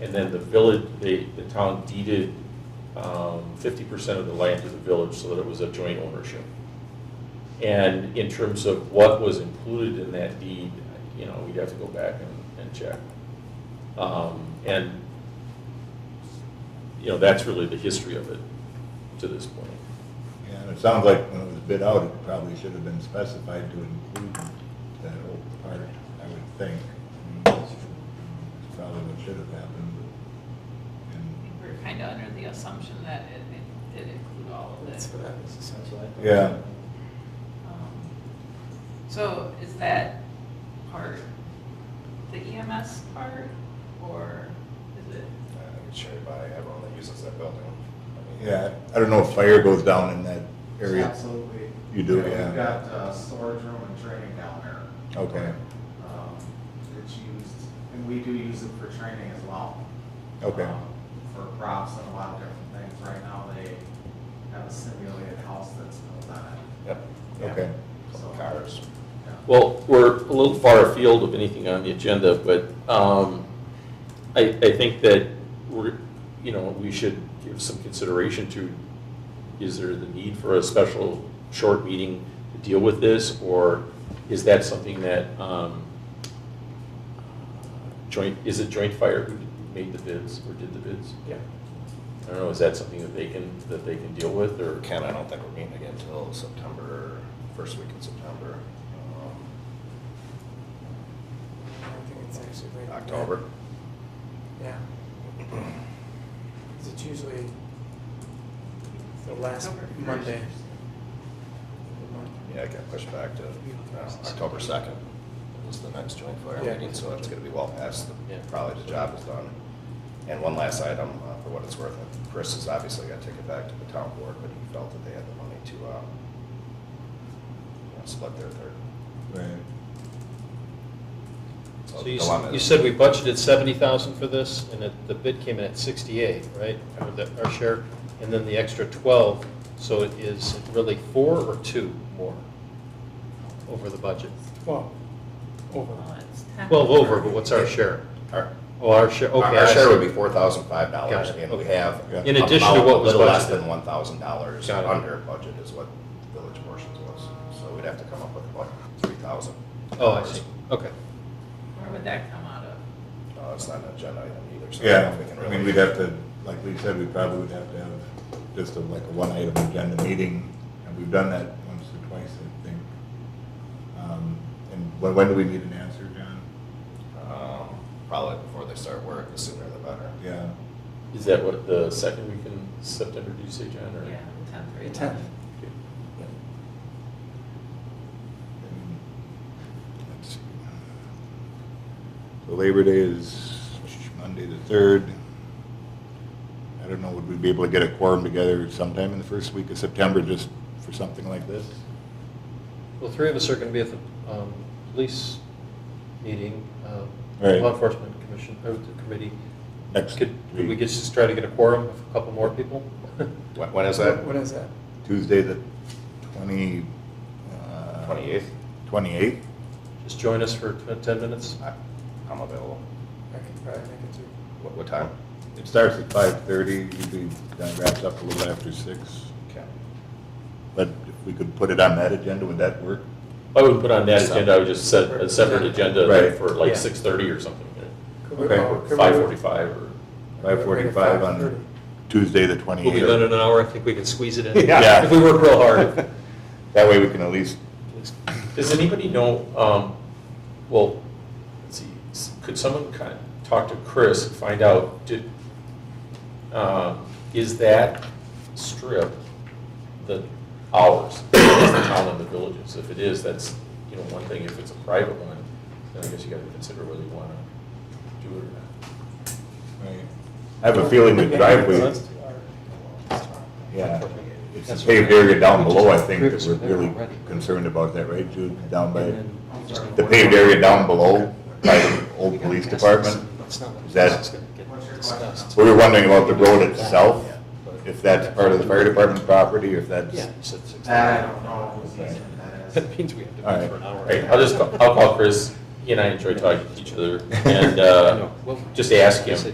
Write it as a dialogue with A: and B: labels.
A: And then the village, the, the town deeded um, fifty percent of the land to the village so that it was a joint ownership. And in terms of what was included in that deed, you know, we'd have to go back and, and check. Um, And, you know, that's really the history of it to this point.
B: And it sounds like when it was bid out, it probably should have been specified to include that whole part, I would think. I mean, That's that's probably what should have happened, but, and,
C: We're kind of under the assumption that it, it did include all of
D: That's
C: it.
D: what I was essentially.
B: yeah.
C: Um, So is that part the EMS part, or is it?
E: and shared uh, by everyone that uses that building. I mean,
B: Yeah, I don't know if fire goes down in that area.
F: Absolutely.
B: You do,
F: We've
B: yeah.
F: got uh, storage room and training down there.
B: Okay,
F: um, It's used, and we do use it for training as well.
B: Okay.
F: Um, For props and a lot of different things. Right now, they have a simulated house that's built on it.
E: Yep,
B: okay.
F: So-
E: cars.
F: Yeah.
A: Well, we're a little far afield of anything on the agenda, but um, I, I think that we're, you know, we should give some consideration to, is there the need for a special short meeting to deal with this? Or is that something that um, joint, is it Joint Fire who made the bids or did the bids? Yeah. I don't know, is that something that they can, that they can deal with or?
E: Ken, I don't think we're meeting again until September, first week in September. um,
D: I don't think it's actually right.
E: October.
D: Yeah. 'Cause it's usually the last
C: October first.
D: Monday. of the month.
E: Yeah, it got pushed back to uh, October 2nd was the next joint fire
D: Yeah.
E: meeting, so it's going to be well past, the-
A: Yeah.
E: probably the job is done. And one last item, uh, for what it's worth, Chris has obviously got to take it back to the town board, but he felt that they had the money to uh, you know, split their third.
B: Right.
G: So
E: the
G: you,
E: dilemma
G: s- you
E: is-
G: said we budgeted seventy thousand for this, and it, the bid came in at sixty-eight, right? Or the, our share, and then the extra twelve, so it is really four or two more over the budget?
D: Well, over.
C: Well, it's ten.
G: Twelve over, but what's our share? Our, oh, our share, okay.
E: Our
G: I
E: our share
G: see.
E: would be four thousand five dollars,
G: Got it,
E: and we
G: okay.
E: have.
B: Yeah.
G: In addition to
E: about
G: what was
E: A little less
G: budgeted.
E: than one thousand dollars
G: Got it.
E: under budget is what village portions was, so we'd have to come up with what, three thousand?
G: Oh, I see, okay.
C: Where would that come out of?
E: Uh, it's not an agenda item either, so. I don't
B: Yeah,
E: know if we can
B: I
E: really-
B: mean, we'd have to, like we said, we probably would have to have just a, like a one-item agenda meeting, and we've done that once or twice, I think. Um, And when, when do we need an answer, John?
E: Um, Probably before they start work, the sooner the better.
B: Yeah,
A: Is that what, the second week in September, did you say, John? or-
C: Yeah, the tenth or
D: The
C: eleventh.
D: tenth.
A: Okay.
B: I mean, let's see. uh, So Labor Day is Monday the third. I don't know, would we be able to get a quorum together sometime in the first week of September, just for something like this?
G: Well, three of us are going to be at the um, police meeting, um,
B: Right.
G: law enforcement commission, or the committee.
B: Next
G: Could could we
B: week.
G: get- just try to get a quorum of a couple more people?
E: When, when is that?
D: What is that?
B: Tuesday, the twenty, uh.
E: Twenty-eighth?
B: Twenty-eighth?
G: Just join us for tw- 10 minutes?
E: I'm available.
D: I could probably make it through.
E: What, what time?
B: It starts at five-thirty, usually that wraps up a little after six.
E: Okay.
B: But if we could put it on that agenda, would that work?
A: I wouldn't put on that agenda, I would just set a separate agenda
B: Right.
A: for
G: Yeah.
A: like six thirty or something,
D: Could we-
B: Okay.
D: oh, could we-
A: five forty-five or.
B: Five forty-five on Tuesday, the
G: We'll
B: twenty-eighth.
G: be done in an hour, I think we can squeeze it in.
B: Yeah.
G: If we work real hard.
B: That way we can at least,
A: Does anybody know, um, well, let's see, s- could someone kind of talk to Chris and find out, did, um, is that strip the hours, is the town and the villages? If it is, that's, you know, one thing, if it's a private one, then I guess you gotta consider whether you wanna do it or not.
B: I have a feeling the driveway, yeah, it's the paved area down below, I think, that we're really concerned about that, right, Jude, down by, the paved area down below, by the old police department? Is that,
F: What's your question?
B: we were wondering about the road itself, if that's part of the fire department property, if that's,
G: Yeah, you said six.
F: That I don't know who's using that as.
G: That means we have to
B: All
G: do
B: right.
G: it for an hour.
A: All right, I'll just, I'll call Chris, he and I enjoy talking to each other, and, uh,
G: No, well-
A: just ask him.